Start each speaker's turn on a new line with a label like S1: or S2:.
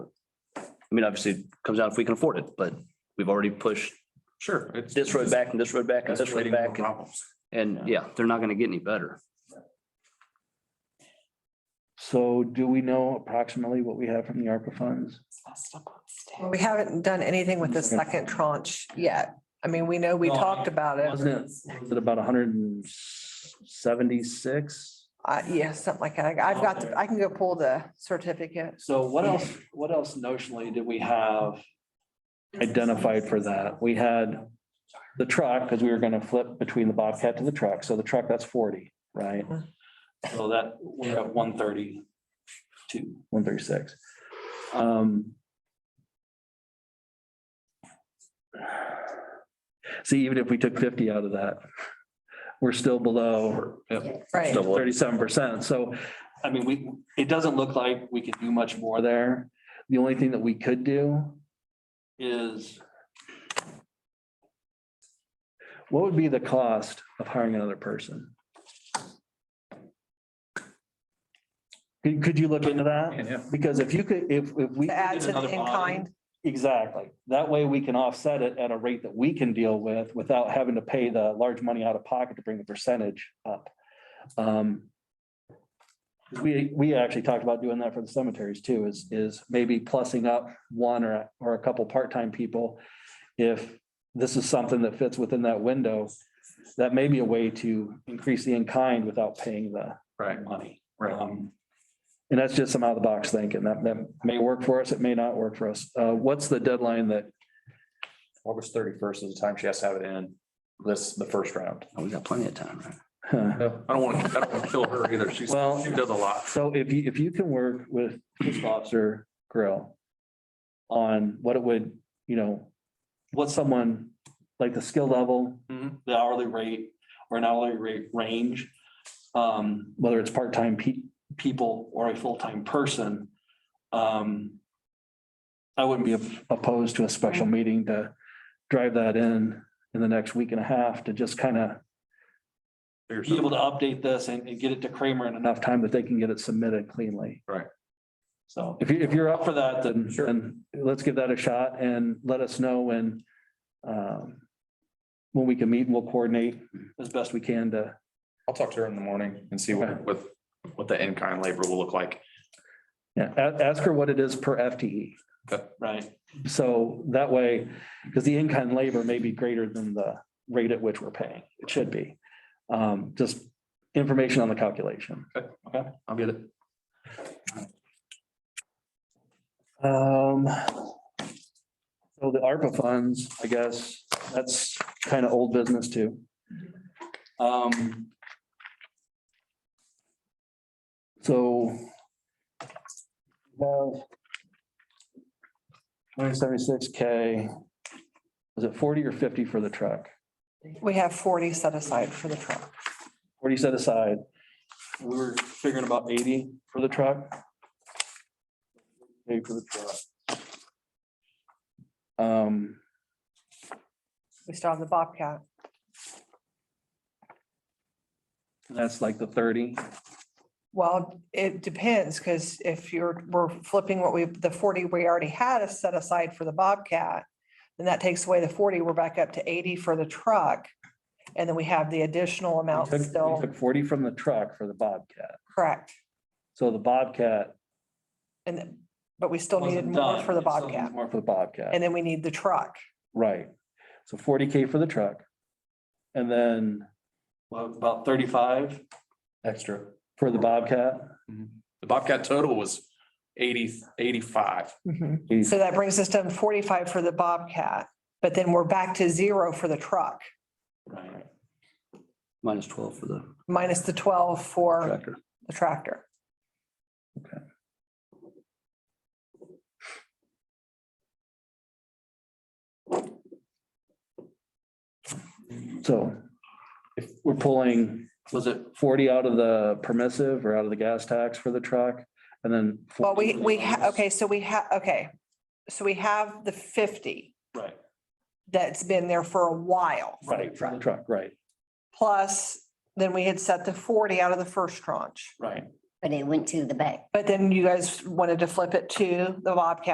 S1: I mean, obviously, it comes out if we can afford it, but we've already pushed
S2: Sure. it's-
S1: this road back and this road back and this road
S2: Escalating more
S1: back. and-
S2: Problems.
S1: And yeah, they're not gonna get any better.
S3: So do we know approximately what we have from the ARPA funds?
S4: Well, We haven't done anything with the second tranche yet. I mean, we know we
S3: No, I-
S4: talked about it.
S3: Wasn't it, was it about hundred and seventy-six?
S4: Uh, yeah, something like that. I've got, the- I can go pull the certificate.
S3: So what else, what else notionally did we have identified for that? We had the truck, because we were gonna flip between the Bobcat to the truck. So the truck, that's forty, right? So that, we're at one thirty-two, one thirty-six. Um. See, even if we took fifty out of that, we're still below
S4: Right.
S1: So what-
S3: thirty-seven percent. So, I mean, we, it doesn't look like we can do much more there. The only thing that we could do is what would be the cost of hiring another person? Could, could you look into that?
S2: Yeah.
S3: Because if you could, if, if we.
S4: To add to the
S2: Another
S4: in kind.
S3: Exactly. That way we can offset it at a rate that we can deal with without having to pay the large money out of pocket to bring the percentage up. Um, 'cause We, we actually talked about doing that for the cemeteries too, is, is maybe plussing up one or, or a couple part-time people. If this is something that fits within that window, that may be a way to increase the in-kind without paying the
S2: Right,
S3: money.
S2: right.
S3: Um, And that's just some out of the box thinking. That, that may work for us. It may not work for us. Uh, what's the deadline that,
S5: August thirty-first is the time she has to have it in. This, the first round.
S1: Oh, We got plenty of time, right?
S3: huh?
S2: I don't want, to. I don't want to kill her either. She's,
S3: Well-
S2: she does a lot.
S3: so if you, if you can work with fiscal officer Grill on what it would, you know, what someone, like the skill level,
S2: Mhm.
S3: Mm-hmm. the hourly rate or an hourly rate range, um, whether it's part-time pe- people or a full-time person. Um, I wouldn't be op- opposed to a special meeting to drive that in in the next week and a half to just kind of
S2: Figure
S3: be able
S2: something
S3: to update this and, and get it to Kramer in enough time that they can get it submitted cleanly.
S2: Right.
S3: So if you, if you're up for that, then, then let's give that a shot and let us know when, um, when we can meet and we'll coordinate as best we can to,
S5: I'll talk to her in the morning and see what, what, what the in-kind labor will look like.
S3: yeah, a- ask her what it is per FTE.
S5: Okay.
S3: Right. So that way, because the in-kind labor may be greater than the rate at which we're paying. It should be. Um, just information on the calculation.
S2: Okay, I'll get it.
S3: Um, so the ARPA funds, I guess, that's kind of old business too. Um. So. Well. One seventy-six K. Was it forty or fifty for the truck?
S4: We have forty set aside for the truck.
S3: Forty set aside. We were figuring about eighty for the truck. Eighty for the truck. Um.
S4: We still have the Bobcat.
S3: That's like the thirty.
S4: Well, it depends, because if you're, we're flipping what we, the forty we already had is set aside for the Bobcat. Then that takes away the forty, we're back up to eighty for the truck. And then we have the additional
S3: We
S4: amount
S3: took- we
S4: still,
S3: took Forty from the truck for the Bobcat.
S4: correct. then
S3: So the Bobcat.
S4: And, but we still needed
S3: wasn't
S4: more
S3: done.
S4: for the
S3: It still needs
S4: Bobcat.
S3: More for the Bobcat,
S4: And then we need the truck.
S3: right. So forty K for the truck. And then. About thirty-five? Extra. For the Bobcat.
S5: The Bobcat total was eighty, eighty-five.
S3: Mm-hmm.
S4: Mhm. So that brings us down to forty-five for the Bobcat, but then we're back to zero for the truck,
S3: Right.
S1: Minus twelve for the
S4: minus the twelve for
S1: tractor.
S4: the tractor.
S3: So if we're pulling, was it forty out of the permissive or out of the gas tax for the truck? And then.
S4: Well, we,
S3: 40
S4: we, ha- okay, so we have, okay, so we have the fifty
S3: Right,
S4: that's been there for a while.
S3: right, for the truck, right,
S4: Plus, then we had set the forty out of the first tranche.
S3: right.
S6: But it went to the bank.
S4: But then you guys wanted to flip it to the Bobcat